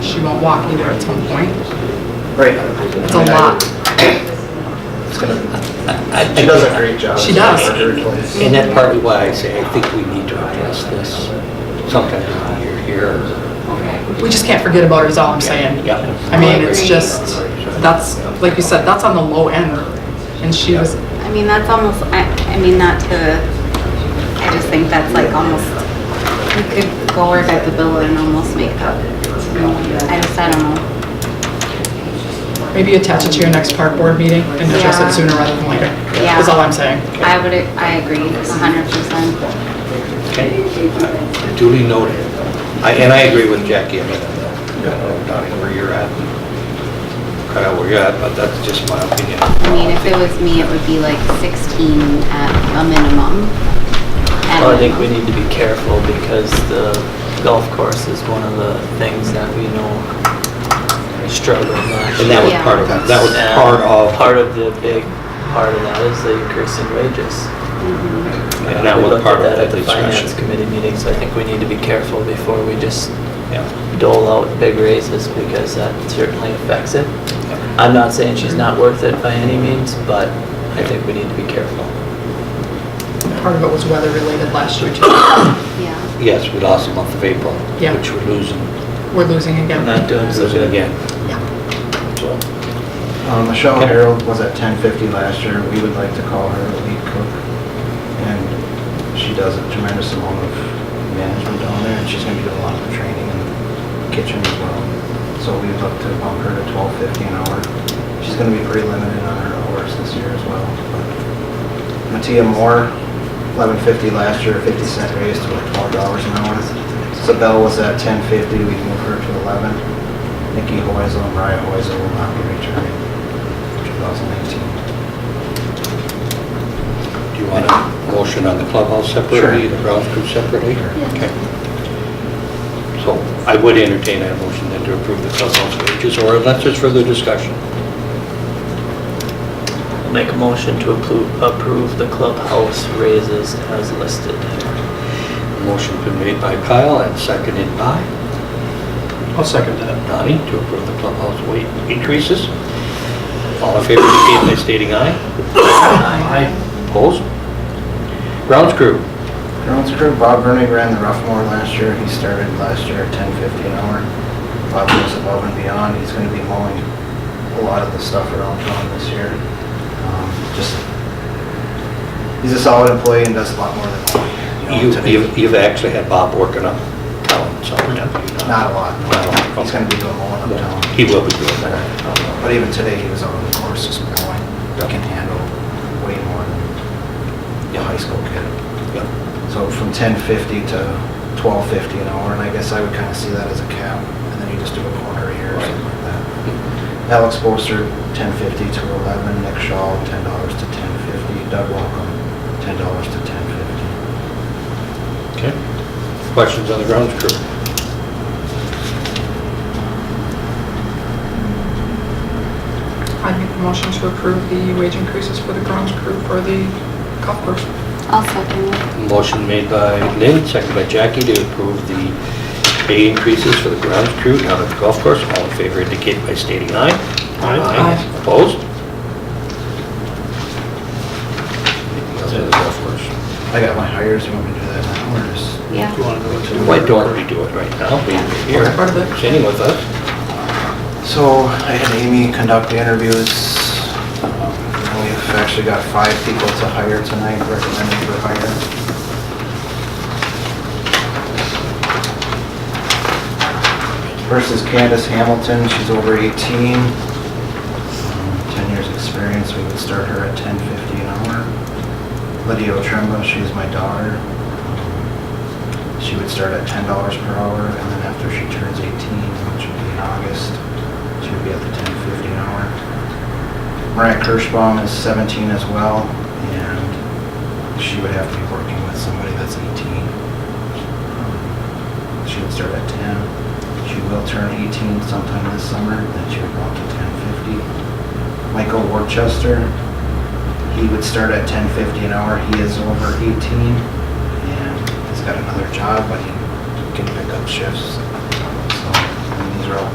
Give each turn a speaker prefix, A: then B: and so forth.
A: won't walk either at some point.
B: Right.
A: It's a lot.
B: It's gonna,
C: I-
B: she does a great job.
A: She does.
C: And that's partly why I say I think we need to address this sometime in the year here.
A: We just can't forget about her is all I'm saying.
C: Yeah.
A: I mean, it's just, that's, like you said, that's on the low end. And she was,
D: I mean, that's almost, I, I mean, not to, I just think that's like almost, you could go work at the Villa and almost make up. I just, I don't know.
A: maybe attach it to your next park board meeting and address
D: Yeah.
A: it sooner rather than later.
D: Yeah.
A: Is all I'm saying.
D: I would, I agree a hundred percent.
C: Duly noted. I- And I agree with Jackie, I mean, I don't know, Donnie, where you're at, cut out where you're at, but that's just my opinion.
D: I mean, if it was me, it would be like sixteen at a minimum. At
E: Well, Oh, I think we
D: minimum.
E: need to be careful because the golf course is one of the things that we know we struggle with.
C: And that was
D: Yeah.
C: part of, that was
E: And
C: part of,
E: Part of the big part of that is the increase in wages.
C: and that was part of the
E: We looked at that at the finance
C: discussion.
E: committee meeting, so I think we need to be careful before we just
C: Yeah.
E: dole out big raises because that certainly affects it. I'm not saying she's not worth it by any means, but I think we need to be careful.
A: Part of it was weather related last year too.
D: Yeah.
C: Yes, we lost the month of April,
A: Yeah.
C: which we're losing,
A: We're losing
E: I'm
A: again.
E: not doing so
C: losing
E: good.
C: again,
A: Yeah.
C: so.
B: Um, Michelle Harold was at ten fifty last year. We would like to call her a lead cook. And she does a tremendous amount of management down there and she's gonna be doing a lot of training in the kitchen as well. So we would look to bump her to twelve fifty an hour. She's gonna be pretty limited on her hours this year as well. but- Matia Moore, eleven fifty last year, fifty cent raise to like twelve dollars an hour. Sabelle was at ten fifty, we moved her to eleven. Nikki Hoisel and Mariah Hoisel will not be returning 2019.
C: Do you want a motion on the clubhouse separately,
B: Sure.
C: the grounds crew separately? or-
D: Yeah.
C: Okay. So I would entertain that motion then to approve the clubhouse wages, or unless there's further discussion.
E: Make a motion to approve, approve the clubhouse raises as listed.
C: Motion's been made by Kyle and seconded by
F: I'll second that.
C: Donnie to approve the clubhouse wage increases. All in favor, indicate by stating aye.
F: Aye.
C: Opposed? Grounds crew,
B: Grounds crew, Bob Vernig ran the Roughmore last year. He started last year at 10:50 an hour. Bob goes above and beyond. He's going to be mowing a lot of the stuff around town this year. Um, Just, he's a solid employee and does a lot more than.
C: you,
B: know,
C: you've- you've actually had Bob working up town, so.
B: Not a lot.
C: Not a lot.
B: He's going to be doing mowing uptown.
C: He will be doing that.
B: But even today, he was out on the course this morning. He can handle way more than a high school kid.
C: Yep.
B: So from ten fifty to twelve fifty an hour, and I guess I would kind of see that as a cap, and then you just do a corner here or something like that. Alex Bolster, ten fifty to eleven, Nick Shaw, ten dollars to ten fifty, Doug Welcome, ten dollars to ten fifty.
C: Okay. Questions on the grounds crew?
A: I make the motion to approve the wage increases for the grounds crew for the golf course.
D: I'll second it.
C: Motion made by Lynn, seconded by Jackie to approve the pay increases for the grounds crew down at the golf course. All in favor indicate by stating aye.
A: Aye.
C: Opposed? Anything else on the golf course?
B: I got my hires, you want me to do that now, or just?
D: Yeah.
C: Why don't we do it right now? We're here,
A: That's part of it.
C: sitting with us.
B: So I had Amy conduct the interviews. Um, We've actually got five people to hire tonight, recommended for hire. First is Candace Hamilton, she's over 18, um, 10 years experience, we would start her at 10.50 an hour. Lydia Otremba, she's my daughter. She would start at ten dollars per hour, and then after she turns eighteen, which would be in August, she would be at the ten fifty an hour. Mariah Kirschbaum is seventeen as well, and she would have to be working with somebody that's eighteen. Um, She would start at ten. She will turn eighteen sometime this summer, then she would go up to ten fifty. Michael Worcester, he would start at ten fifty an hour. He is over eighteen and he's got another job, but he can pick up shifts. So, and these are all